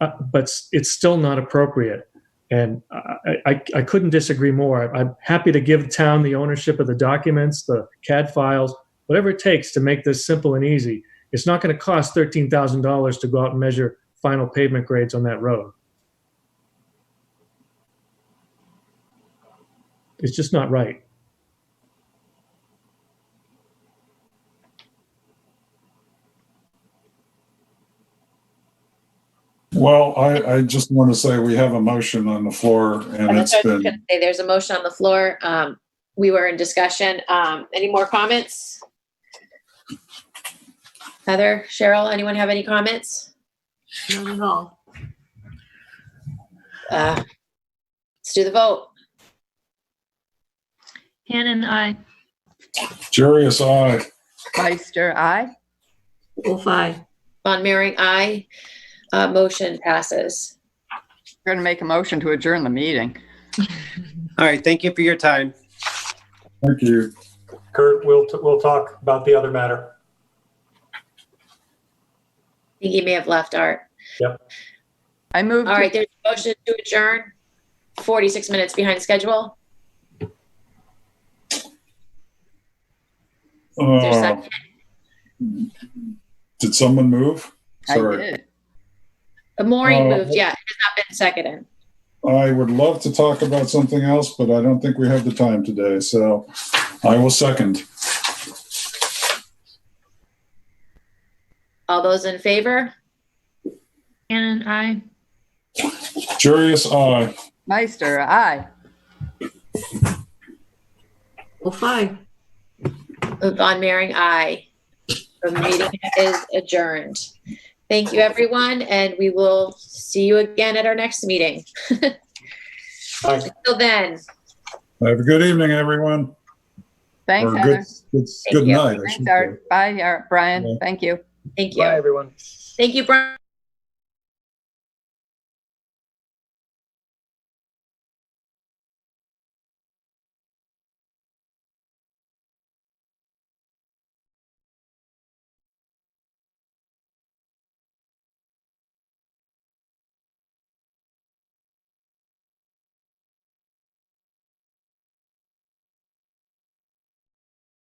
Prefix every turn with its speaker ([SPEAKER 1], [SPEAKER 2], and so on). [SPEAKER 1] uh, but s- it's still not appropriate. And I, I, I couldn't disagree more. I, I'm happy to give town the ownership of the documents, the CAD files, whatever it takes to make this simple and easy. It's not going to cost thirteen thousand dollars to go out and measure final pavement grades on that road. It's just not right.
[SPEAKER 2] Well, I, I just want to say we have a motion on the floor and
[SPEAKER 3] That's
[SPEAKER 2] it's
[SPEAKER 3] what I was
[SPEAKER 2] been,
[SPEAKER 3] gonna say. There's a motion on the floor. Um, we were in discussion. Um, any more comments? Heather, Cheryl, anyone have any comments?
[SPEAKER 4] Not at all.
[SPEAKER 3] Uh, let's do the vote.
[SPEAKER 5] Hannon, I.
[SPEAKER 2] Jarius, aye.
[SPEAKER 6] Meister, aye.
[SPEAKER 4] Wolf eye.
[SPEAKER 3] Von Mering, aye. Uh, motion passes.
[SPEAKER 6] We're going to make a motion to adjourn the meeting.
[SPEAKER 7] All right, thank you for your time.
[SPEAKER 2] Thank you.
[SPEAKER 8] Kurt, we'll, we'll talk about the other matter.
[SPEAKER 3] I think he may have left Art.
[SPEAKER 6] I move
[SPEAKER 3] All right,
[SPEAKER 6] to,
[SPEAKER 3] there's a motion to adjourn. Forty-six minutes behind schedule. Is there a
[SPEAKER 2] Uh,
[SPEAKER 3] second?
[SPEAKER 2] Did someone move?
[SPEAKER 6] I
[SPEAKER 2] Sorry.
[SPEAKER 6] did.
[SPEAKER 3] Maureen
[SPEAKER 2] Uh,
[SPEAKER 3] moved, yeah, it has not been seconded.
[SPEAKER 2] I would love to talk about something else, but I don't think we have the time today, so I will second.
[SPEAKER 3] All those in favor?
[SPEAKER 5] Hannon, I.
[SPEAKER 2] Jarius, aye.
[SPEAKER 6] Meister, aye.
[SPEAKER 4] Wolf eye.
[SPEAKER 3] Von Mering, aye. The meeting is adjourned. Thank you, everyone, and we will see you again at our next meeting.
[SPEAKER 8] Bye.
[SPEAKER 3] Till then,
[SPEAKER 2] Have a good evening, everyone.
[SPEAKER 6] Thanks,
[SPEAKER 2] Or good,
[SPEAKER 6] Heather.
[SPEAKER 2] good,
[SPEAKER 3] Thank
[SPEAKER 2] good
[SPEAKER 3] you.
[SPEAKER 2] night. I should
[SPEAKER 6] Thanks,
[SPEAKER 2] say.
[SPEAKER 6] Art. Bye, Art.
[SPEAKER 2] Bye.
[SPEAKER 6] Brian. Thank you.
[SPEAKER 3] thank you.
[SPEAKER 7] everyone.
[SPEAKER 3] Thank you, Brian.